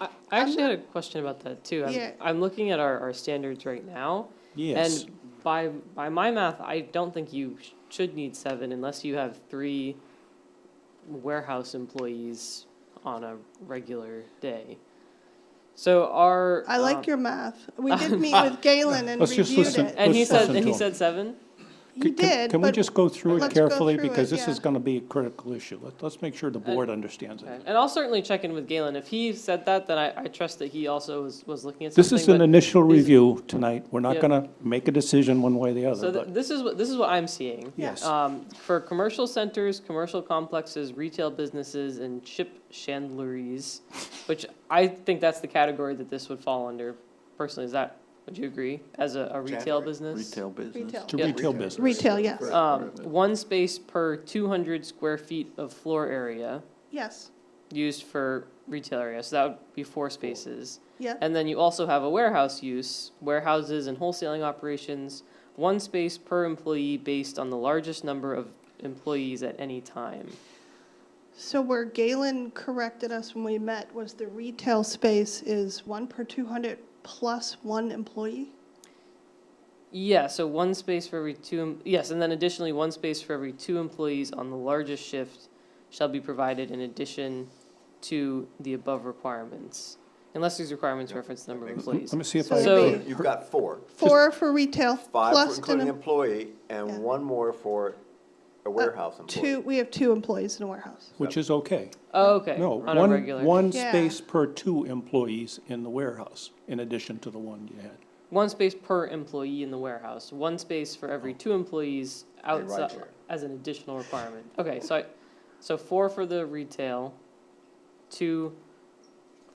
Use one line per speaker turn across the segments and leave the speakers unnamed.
I I actually had a question about that too. I'm-
Yeah.
I'm looking at our, our standards right now.
Yes.
And by, by my math, I don't think you sh- should need seven unless you have three warehouse employees on a regular day. So our.
I
um,
like your math. We did meet with Galen and
Let's just
reviewed
listen.
it.
And he
Let's
said,
listen
and
to
he
him.
said seven?
He
Can- can-
did,
Can we
but
just go through it
let's go
carefully,
through it,
because this is
yeah.
gonna be a critical issue. Let, let's make sure the board understands
Okay.
it.
And I'll certainly check in with Galen. If he said that, then I, I trust that he also was, was looking at something.
This is an
but-
initial
these-
review tonight, we're
Yeah.
not gonna make a decision one way or the
So
other,
th-
but
this is what, this is what I'm seeing.
Yes.
Um, for commercial centers, commercial complexes, retail businesses, and chip chandleries, which I think that's the category that this would fall under. Personally, is that, would you agree, as a, a retail
Chandlery?
business?
Retail business.
Retail.
to
Yeah.
retail business.
Retail, yes.
Correct.
Um, one space per two hundred square feet of floor area
Yes,
used for retail area, so that would be four spaces.
yeah.
And then you also have a warehouse use, warehouses and wholesaling operations, one space per employee based on the largest number of employees at any time.
So where Galen corrected us when we met was the retail space is one per 200 plus one employee?
Yeah, so one space for every two, em- yes, and then additionally, one space for every two employees on the largest shift shall be provided in addition to the above requirements, unless these requirements reference the number of employees.
Let me see if
So
I,
So-
agree.
You've got four,
Four for retail
five for
plus
including
an em-
employee
Yeah. Uh,
and one more for a warehouse
two,
employee.
we have two employees in a warehouse.
which is okay.
Oh, okay,
No,
on a regular.
one, one
Yeah.
space per two employees in the warehouse, in addition to the one you had.
One space per employee in the warehouse, one space for every two employees
And ride
outside,
share.
as an additional requirement. Okay, so I, so four for the retail, two,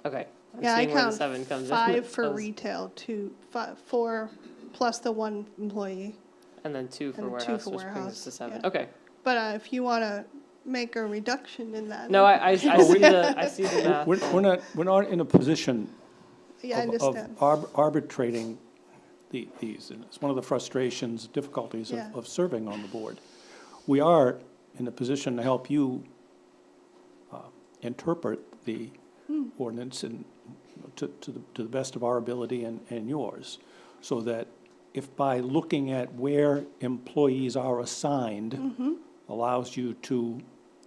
okay. I'm
Yeah, I
seeing where the
count
seven comes in.
five for
Those-
retail, two, fi- four plus the one employee.
And then two for
and two
warehouse,
for
which brings us
warehouse,
to seven.
yeah.
Okay,
But uh, if you want to make a reduction in that.
no, I, I, I see the, I see the math.
We're, we're not, we're not in a position
Yeah, I
of-
understand.
Of arb- arbitrating the- these, and it's one of the frustrations, difficulties of,
Yeah.
of serving on the board. We are in a position to help you uh, interpret the
Hmm.
ordinance and to, to the, to the best of our ability and, and yours, so that if by looking at where employees are
Mm-hmm.
assigned allows you to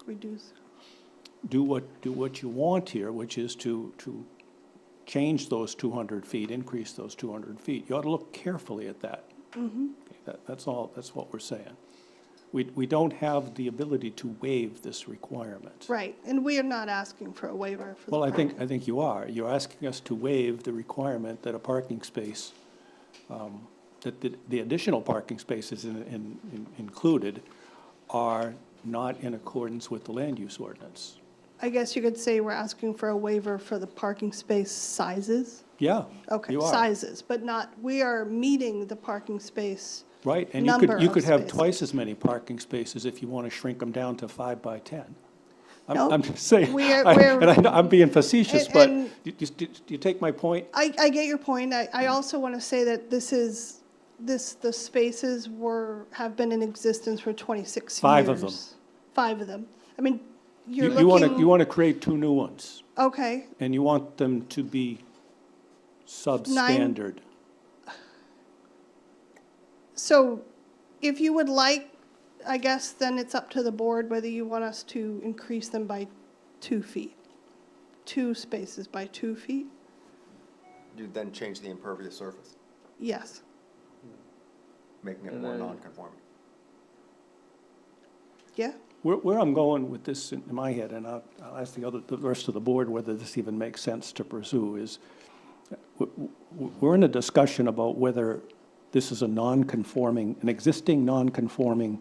Reduce.
do what, do what you want here, which is to, to change those 200 feet, increase those 200 feet. You ought to look carefully at that.
Mm-hmm.
Okay, That, that's all, that's what we're saying. We, we don't have the ability to waive this requirement.
Right, and we are not asking for a waiver for the.
Well, I think, I think you are. You're asking us to waive the requirement that a parking space, um, that the, the additional parking spaces in, in, in- included are not in accordance with the land use ordinance.
I guess you could say we're asking for a waiver for the parking space sizes.
Yeah,
Okay,
you are.
sizes, but not, we are meeting the parking space.
Right, and you could,
number
you
of
could have
spaces.
twice as many parking spaces if you want to shrink them down to five by 10. I'm,
No,
I'm just saying,
we are-
I-
we're-
and I know I'm being facetious,
And-
but
and-
you- you- do you take my point?
I, I get your point. I, I also want to say that this is, this, the spaces were, have been in existence for 26 years.
Five of them.
Five of them. I mean, you're
You want to, you
looking,
want to create two new ones,
okay,
and you want them to be substandard.
so if you would like, I guess then it's up to the board whether you want us to increase them by two feet. Two spaces by two feet?
You then change the impervious surface,
Yes.
making it
And
more
then-
non-conforming.
Yeah?
Where, where I'm going with this in my head, and I'll, I'll ask the other, the rest of the board whether this even makes sense to pursue, is w- w- we're in a discussion about whether this is a non-conforming, an existing non-conforming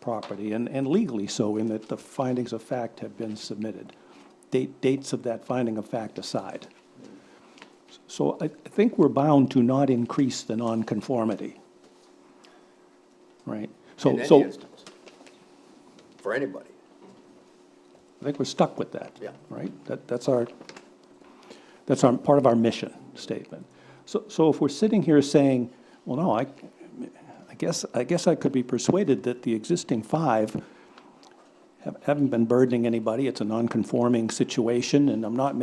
property, and, and legally so, in that the findings of fact have been submitted. Date, dates of that finding of fact aside. So I, I think we're bound to not increase the nonconformity. Right? So,
In any
so
instance, for anybody.
I think we're stuck with that.
Yeah.
Right? That, that's our, that's our, part of our mission statement. So, so if we're sitting here saying, well, no, I, I guess, I guess I could be persuaded that the existing five have- haven't been burdening anybody, it's a non-conforming situation, and I'm not